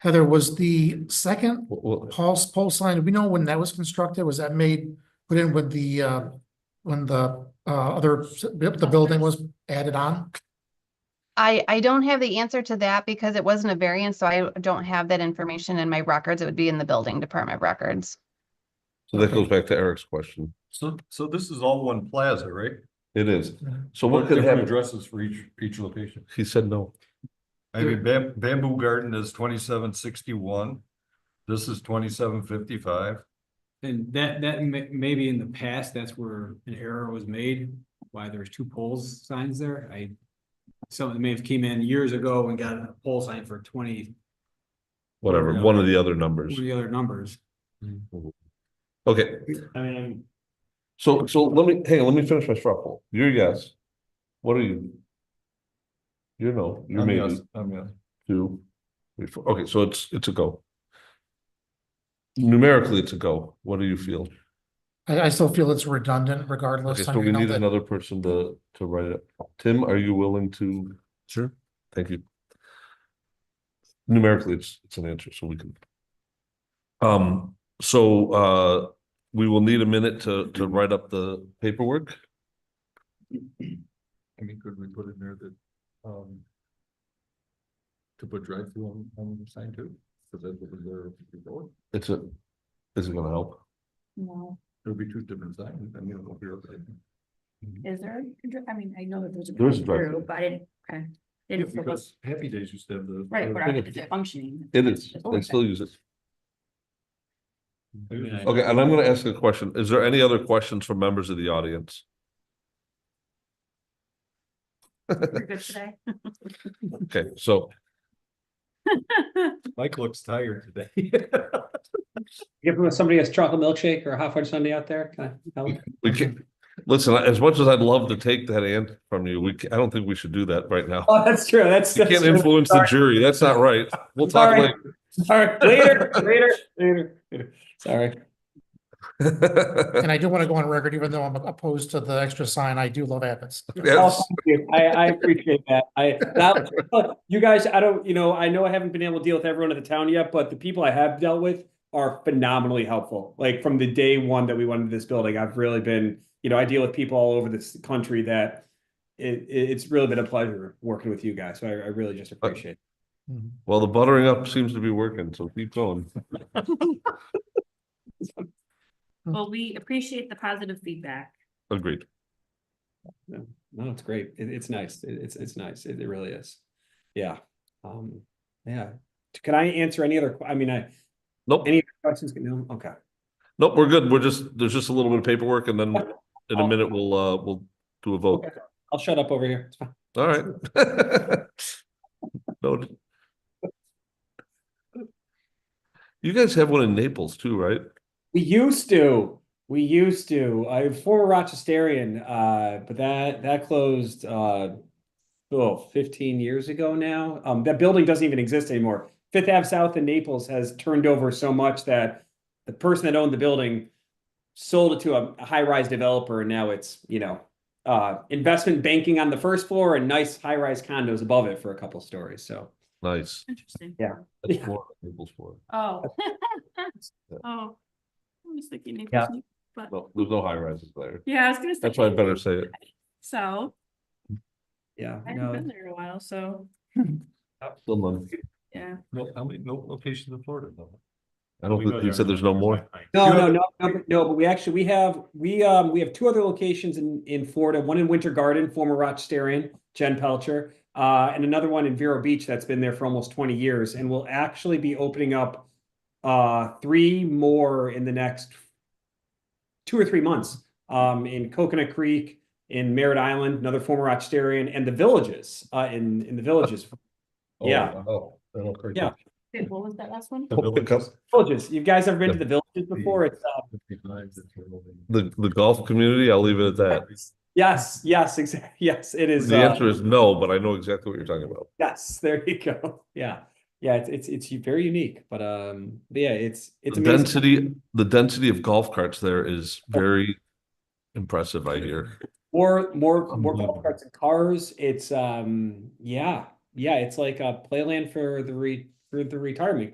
Heather, was the second Well, well, pulse pole sign, do we know when that was constructed? Was that made, put in with the, uh, when the, uh, other, the building was added on? I, I don't have the answer to that because it wasn't a variance, so I don't have that information in my records. It would be in the building department records. so that goes back to Eric's question. So, so this is all one plaza, right? It is. Yeah. So what could Different happen? Addresses for each, each location. He said no. I mean, Bam- Bamboo Garden is twenty-seven sixty-one. This is twenty-seven fifty-five. And that, that may, maybe in the past, that's where an error was made, why there's two poles signs there, I. Someone may have came in years ago and got a pole sign for twenty, Whatever, No. one of the other what numbers. are the other numbers? Okay, I mean, I'm- so, so let me, hang on, let me finish my straw You're yes. What are you? You're no, you're I'm maybe. yes, I'm yes. two, three, four. Okay, so it's, it's a go. Numerically, it's a go. What do you feel? I, I still feel it's redundant Okay, regardless. I so mean, we I know need that- another person to, to write it. Tim, are you willing to? Sure. Thank you. Numerically, it's, it's an answer, so we can. Um, so, uh, we will need a minute to, to write up the paperwork. I mean, could we put in there that, um. To put drive-through on, on the sign too, because that's what they're, it It's a, is it gonna help? No, would be two different signs, I mean, it'll be okay. is there, a dr- I mean, I know that there's a. There is a drive-through, drive-through. But I didn't, okay. Yeah, Didn't feel like- because Happy Days used to have the. Right, but I- think is it- it functioning? It is. It's They open. still use it. I mean, I- Okay, and I'm gonna ask a question. Is there any other questions from members of the audience? We're good today. Okay, so Mike looks tired today. Give them somebody has chocolate milkshake or a hot fudge sundae out there, can I help? we can, listen, as much as I'd love to take that and from you, we, ca- I don't think we should do that right now. Oh, that's true, that's. You can't that's- influence the jury. That's not right. We'll talk Sorry. later. All right, later, later, later, later, sorry. And I do want to go on record, even though I'm opposed to the extra sign, I do love Abbott's. Oh, Yes, thank you. I, I appreciate that. I, that, look, you guys, I don't, you know, I know I haven't been able to deal with everyone in the town yet, but the people I have dealt with are phenomenally helpful. Like from the day one that we went into this building, I've really been, you know, I deal with people all over this country that it, it- it's really been a pleasure working with you guys. So I, I really just appreciate it. well, the buttering up seems to be working, so keep going. Well, we appreciate the positive feedback. Agreed. No, no, it's great. It, it's nice. It, it's, it's nice. It, it really is. Yeah. Um, yeah. Can I answer any other, que- I mean, I, Nope, any questions? No, okay. nope, we're good. We're just, there's just a little bit of paperwork and then in Oh. a minute, we'll, uh, we'll do a vote. I'll shut up over here. It's fine. All right. Noted. You guys have one in Naples too, right? We used to, we used to, I am former Rochesterian, uh, but that, that closed, uh, well, 15 years ago now. Um, that building doesn't even exist anymore. Fifth Ave South in Naples has turned over so much that the person that owned the building sold it to a, a high-rise developer and now it's, you know, uh, investment banking on the first floor and nice high-rise condos above it for a couple stories, so. Nice. Interesting. Yeah. That's Yeah. Florida, Naples, Florida. Oh. Oh. I was thinking Naples, Yeah. New- but, No, there's no high rises there. yeah, I was gonna say. That's why I better say it. So, Yeah, I haven't no, been there in a while, so, Still none. yeah. No, how many, no locations in Florida though? I don't think, Oh, you said there's no more. No, no, no, no, but- no, but we actually, we have, we, um, we have two other locations in, in Florida, one in Winter Garden, former Rochesterian, Jen Pelcher. Uh, and another one in Vero Beach that's been there for almost twenty years and will actually be opening up. Uh, three more in the next. Two or three months, um, in Coconut Creek, in Merritt Island, another former Rochesterian and the villages, uh, in, in the villages. Oh, Yeah. wow. I don't think- Yeah. Wait, What was that last one? We'll pick up Villages, you guys ever been to the villages before? It's, uh, The, the golf community, I'll leave it at that. yes, yes, exactly, yes, it is. The uh, answer is no, but I know exactly what you're talking about. Yes, there you go. Yeah. Yeah, it's it's it's very unique, but um but yeah, it's it's The amazing. density, the density of golf carts there is very impressive, I hear. More more more Unbelievable. golf carts and cars. It's um yeah. Yeah, it's like a playland for the re for the retirement